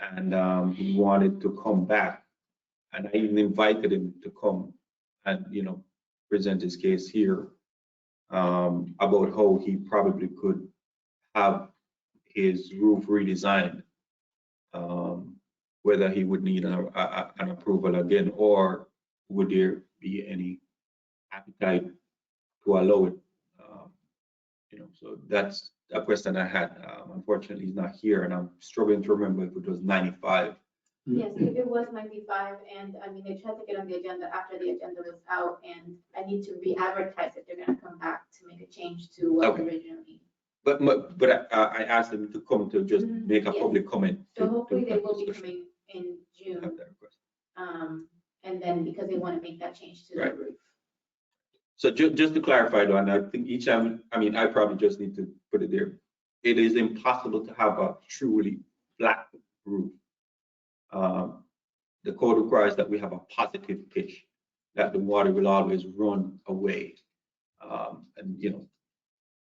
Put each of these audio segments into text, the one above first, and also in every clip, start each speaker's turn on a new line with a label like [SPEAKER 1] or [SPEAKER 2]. [SPEAKER 1] and um, he wanted to come back. And I even invited him to come and, you know, present his case here um, about how he probably could have his roof redesigned. um, Whether he would need an, a- a- an approval again, or would there be any appetite to allow it? um, You know, so that's a question I had. Um, Unfortunately, he's not here, and I'm struggling to remember if it was 95. Mm.
[SPEAKER 2] Yes, if it was ninety-five, and I mean, they tried to get on the agenda after the agenda was out, and I need to re-advertise if they're gonna come back to make a change to what was
[SPEAKER 1] Okay.
[SPEAKER 2] originally.
[SPEAKER 1] But, my- but I- I I asked him to come to just
[SPEAKER 2] Mhm,
[SPEAKER 1] make a
[SPEAKER 2] yeah.
[SPEAKER 1] public comment. to-
[SPEAKER 2] So
[SPEAKER 1] to
[SPEAKER 2] hopefully they
[SPEAKER 1] have
[SPEAKER 2] will be
[SPEAKER 1] discussion.
[SPEAKER 2] coming in
[SPEAKER 1] Have
[SPEAKER 2] June,
[SPEAKER 1] that request.
[SPEAKER 2] um, and then because they wanna make that change to the
[SPEAKER 1] Right.
[SPEAKER 2] roof.
[SPEAKER 1] So ju- just to clarify though, and I think each time, I mean, I probably just need to put it there. It is impossible to have a truly flat roof. Um, The code requires that we have a positive pitch, that the water will always run away. Um, And, you know,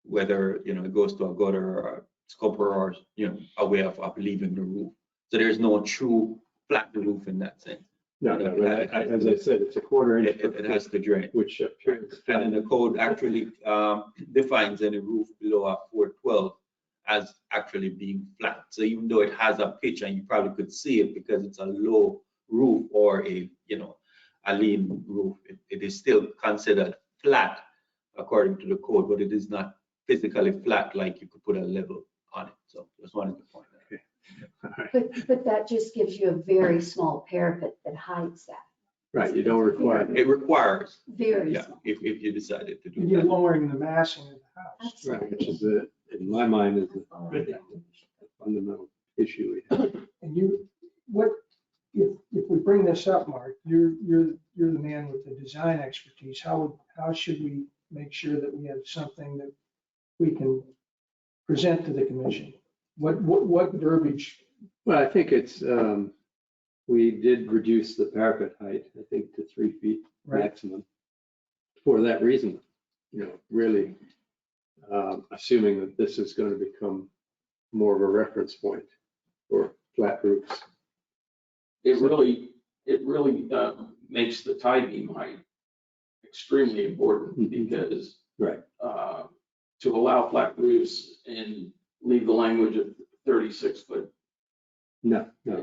[SPEAKER 1] whether, you know, it goes to a gutter or a scupper or, you know, a way of, of leaving the roof. So there's no true flat roof in that sense.
[SPEAKER 3] No, no, but I- I- as I said, it's a quarter
[SPEAKER 1] It,
[SPEAKER 3] inch,
[SPEAKER 1] it it has to drain.
[SPEAKER 3] which uh, appears.
[SPEAKER 1] And then the code actually um, defines any roof below a four twelve as actually being flat. So even though it has a pitch and you probably could see it because it's a low roof or a, you know, a lean roof, it- it is still considered flat according to the code, but it is not physically flat like you could put a level on it. So just wanted to point that.
[SPEAKER 4] But, but that just gives you a very small parapet that hides that,
[SPEAKER 3] Right, you don't require,
[SPEAKER 1] It requires,
[SPEAKER 4] very
[SPEAKER 1] yeah,
[SPEAKER 4] small.
[SPEAKER 1] if, if you decided to do
[SPEAKER 5] You're
[SPEAKER 1] that.
[SPEAKER 5] lowering the massing of the house.
[SPEAKER 3] right, which is, the- in my mind, is the fundamental issue. we have.
[SPEAKER 5] And you, what, if, if we bring this up, Mark, you're, you're, you're the man with the design expertise. How, would how should we make sure that we have something that we can present to the commission? What, what, what verbiage?
[SPEAKER 3] Well, I think it's, um, we did reduce the parapet height, I think, to three feet
[SPEAKER 5] Right.
[SPEAKER 3] maximum. For that reason, you know, really, um, assuming that this is going to become more of a reference point for flat roofs.
[SPEAKER 6] it really, it really uh, makes the tie beam height extremely important
[SPEAKER 3] Mhm.
[SPEAKER 6] because.
[SPEAKER 3] Right.
[SPEAKER 6] uh, To allow flat roofs and leave the language of thirty-six foot,
[SPEAKER 3] No,
[SPEAKER 6] I
[SPEAKER 3] no.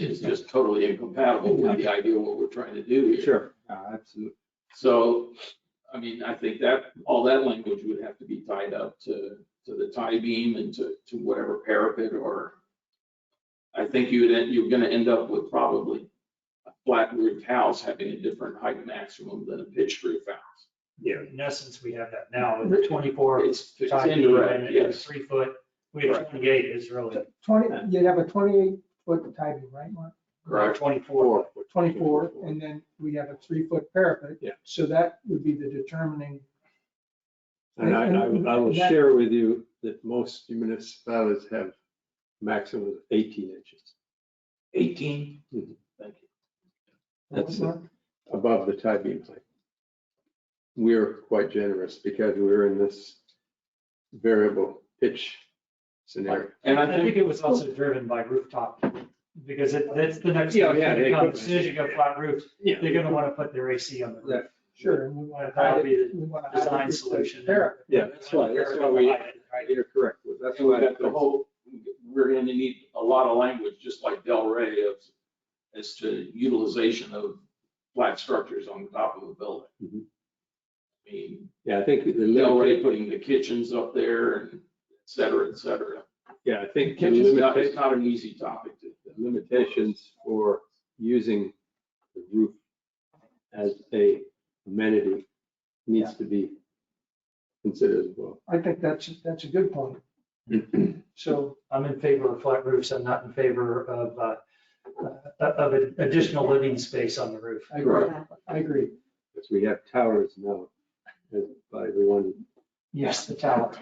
[SPEAKER 3] it-
[SPEAKER 6] it's just totally incompatible with the idea of what we're trying to do here.
[SPEAKER 3] Sure, uh, absolutely.
[SPEAKER 6] So, I mean, I think that, all that language would have to be tied up to, to the tie beam and to, to whatever parapet or. I think you'd, en- you're gonna end up with probably a flat roof house having a different height maximum than a pitched roof house.
[SPEAKER 7] Yeah, in essence, we have that now with the twenty-four.
[SPEAKER 6] It's, it's
[SPEAKER 7] tie beam and
[SPEAKER 6] indirect,
[SPEAKER 7] the
[SPEAKER 6] yes.
[SPEAKER 7] Three foot, we have
[SPEAKER 6] Right.
[SPEAKER 7] twenty-eight is really,
[SPEAKER 5] Twenty, you'd have a twenty-eight foot tie beam, right, Mark?
[SPEAKER 6] Correct.
[SPEAKER 7] twenty-four.
[SPEAKER 5] Twenty-four, and then we have a three-foot parapet.
[SPEAKER 3] Yeah.
[SPEAKER 5] So that would be the determining.
[SPEAKER 3] And I, I- I will
[SPEAKER 5] That-
[SPEAKER 3] share with you that most municipalities have maximum of eighteen inches
[SPEAKER 6] Eighteen.
[SPEAKER 3] Mhm.
[SPEAKER 6] Thank you.
[SPEAKER 3] That's it.
[SPEAKER 5] Mark?
[SPEAKER 3] above the tie beam height. We're quite generous because we're in this variable pitch scenario.
[SPEAKER 6] And
[SPEAKER 7] I
[SPEAKER 6] I
[SPEAKER 7] think
[SPEAKER 6] think,
[SPEAKER 7] it was also driven by rooftop, because it, that's the next.
[SPEAKER 3] Yeah,
[SPEAKER 7] thing
[SPEAKER 3] yeah,
[SPEAKER 7] that
[SPEAKER 3] they-
[SPEAKER 7] comes. As soon as you go flat roofs,
[SPEAKER 3] Yeah.
[SPEAKER 7] they're gonna wanna put their AC on the roof.
[SPEAKER 5] Sure, and we want to hide
[SPEAKER 7] That'll
[SPEAKER 5] it.
[SPEAKER 7] be the
[SPEAKER 5] We wanna hide it
[SPEAKER 7] design
[SPEAKER 5] with the
[SPEAKER 7] solution.
[SPEAKER 5] parapet.
[SPEAKER 3] Yeah, that's why, that's why we, you're correct. That's why.
[SPEAKER 6] that the whole, we're gonna need a lot of language, just like Del Rey of, as to utilization of flat structures on the top of a building.
[SPEAKER 3] Mhm.
[SPEAKER 6] I mean,
[SPEAKER 3] Yeah, I think the
[SPEAKER 6] they're already
[SPEAKER 3] limit,
[SPEAKER 6] putting the kitchens up there and et cetera, et cetera.
[SPEAKER 3] yeah, I think the
[SPEAKER 6] Kitchens, not-
[SPEAKER 3] limitation,
[SPEAKER 6] it's not an easy topic to.
[SPEAKER 3] the limitations for using the roof as a amenity needs to be considered as well.
[SPEAKER 5] I think that's, that's a good point. So,
[SPEAKER 7] I'm in favor of flat roofs, I'm not in favor of, uh, uh, of an additional living space on the roof.
[SPEAKER 5] I agree,
[SPEAKER 4] Yeah.
[SPEAKER 5] I agree.
[SPEAKER 3] Because we have towers now, as by everyone.
[SPEAKER 7] Yes, the tower.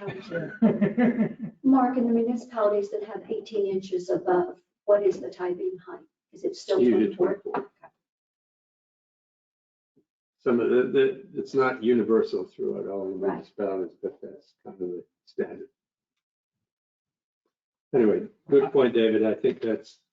[SPEAKER 4] Mark, in the municipalities that have 18 inches above, what is the tie beam height? Is it still
[SPEAKER 3] Usually
[SPEAKER 4] 24?
[SPEAKER 3] 24. Some of the, the, it's not universal throughout all the
[SPEAKER 4] Right.
[SPEAKER 3] municipalities, but that's kind of the standard. Anyway, good point, David. I think that's